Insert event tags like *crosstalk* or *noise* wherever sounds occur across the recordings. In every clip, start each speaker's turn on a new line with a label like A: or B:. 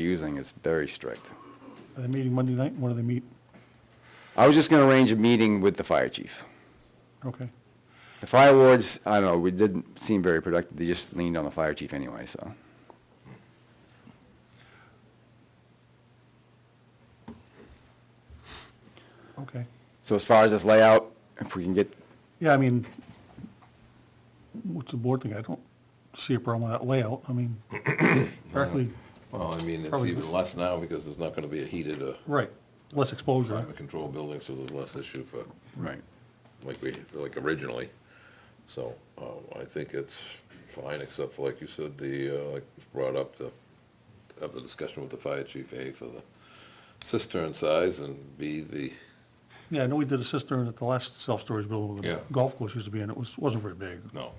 A: using is very strict.
B: Are they meeting Monday night? When do they meet?
A: I was just gonna arrange a meeting with the fire chief.
B: Okay.
A: The fire wards, I don't know, we didn't seem very productive, they just leaned on the fire chief anyway, so.
B: Okay.
A: So as far as this layout, if we can get,
B: Yeah, I mean, what's the board think? I don't see a problem with that layout. I *coughs* mean, practically,
C: Well, I mean, it's
B: Probably-
C: even less now because there's not gonna be a heated, uh,
B: right, less exposure.
C: climate control building, so there's less issue for,
A: right,
C: like we, like originally. So, uh, I think it's fine, except for, like you said, the, uh, like was brought up the, have the discussion with the fire chief, A, for the cistern size, and B, the,
B: Yeah, I know we did a cistern at the last self-storage building where
C: Yeah.
B: the golf course used to be in. It was, wasn't very big.
C: no,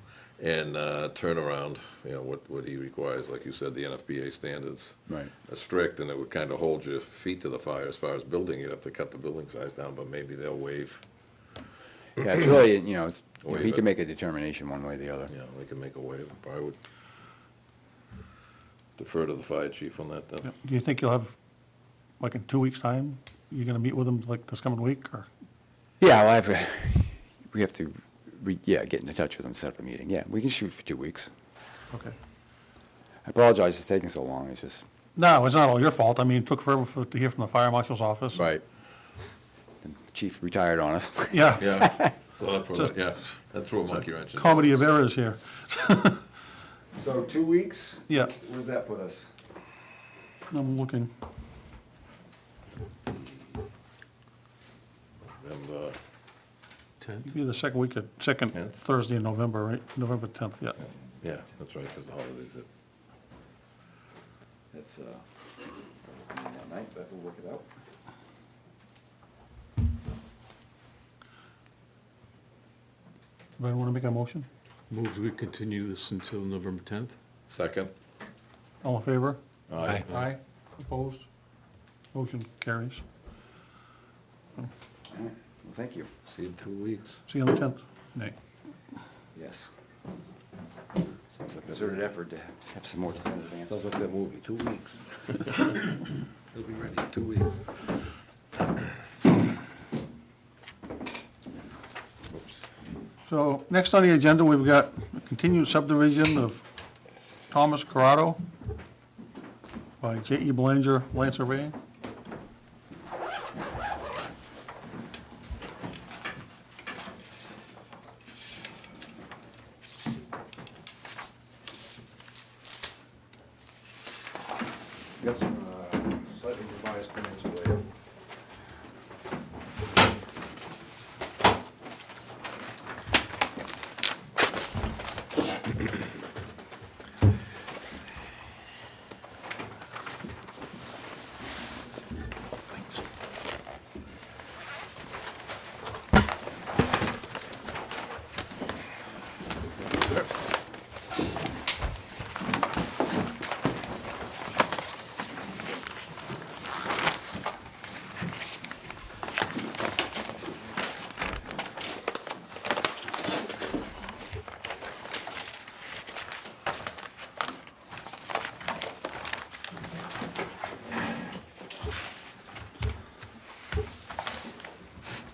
C: and, uh, turnaround, you know, what, what he requires, like you said, the NFPA standards.
A: right.
C: are strict, and it would kind of hold your feet to the fire as far as building, you'd have to cut the building size down, but maybe they'll waive,
A: Yeah, it's really, you know, it's, you know, he
C: Waive
A: can
C: it.
A: make a determination one way or the other.
C: you know, they can make a waive, I would defer to the fire chief on that
B: Yeah.
C: then.
B: Do you think you'll have, like, in two weeks' time, you're gonna meet with them like this coming week or?
A: Yeah, well, I have, to- we have to, re- yeah, get in touch with him, set up a meeting, yeah, we can shoot for two weeks.
B: Okay.
A: I apologize it's taking so long, it's just.
B: No, it's not all your fault. I mean, it took forever for, to hear from the fire marshal's office.
A: The Chief retired on us.
B: Yeah.
C: Yeah, so that threw, yeah, that threw a monkey wrench in. it.
B: Comedy of errors here.
A: So two weeks,
B: Yeah,
A: where does that put us?
B: I'm looking.
C: And, uh,
B: It'd be the second week of, second
C: Tenth?
B: Thursday in November, right? November 10th, yeah.
C: yeah, that's right, because the holidays, it-
A: That's, uh, that night, that will work it out.
B: Anybody want to make a motion?
D: Move that we continue this until November 10th?
C: second.
B: All in favor?
C: Aye.
B: Aye. Opposed? Motion carries.
A: Well, thank you,
C: See you in two weeks.
B: See you on the 10th. Nay.
A: yes. Concerted effort to have some more time to
C: Sounds like that movie, two weeks. It'll be ready in two weeks.
B: So next on the agenda, we've got a continued subdivision of Thomas Corrado by J.E. Belanger Land Surveying.
E: Got some uh, slightly revised plans for you.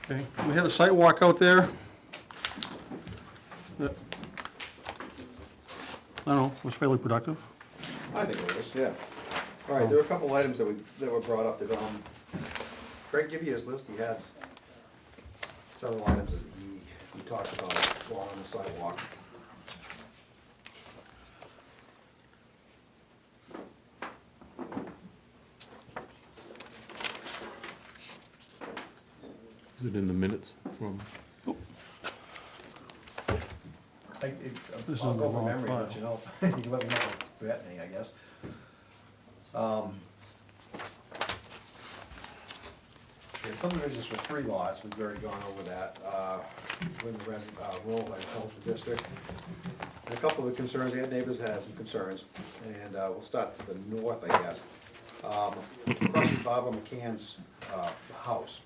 B: Okay, we had a site walk out there. that, I don't know, was fairly productive.
E: I think it was, yeah. All right, there were a couple items that we, that were brought up that, um, Craig, give you his list, he had several items that he, he talked about while on the sidewalk.
D: Is it in the minutes from?
E: I- it-
B: This is
E: uh, I'll
B: in the
E: go from
B: wrong
E: memory,
B: file.
E: but you know, *laughs* you can let me know if you got any, I guess. Um, yeah, Subdivisions for three lots, we've already gone over that, uh, with the rest, uh, rural agricultural district. And A couple of the concerns, they had neighbors that had some concerns, and, uh, we'll start to the north, I guess. Um, Across from Barbara McCann's, uh, house,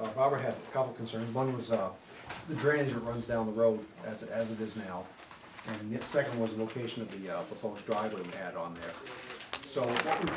E: uh, Barbara had a couple concerns. One was uh, the drainage that runs down the road as, as it is now. And the second was the location of the uh, proposed driveway we had on there. So what we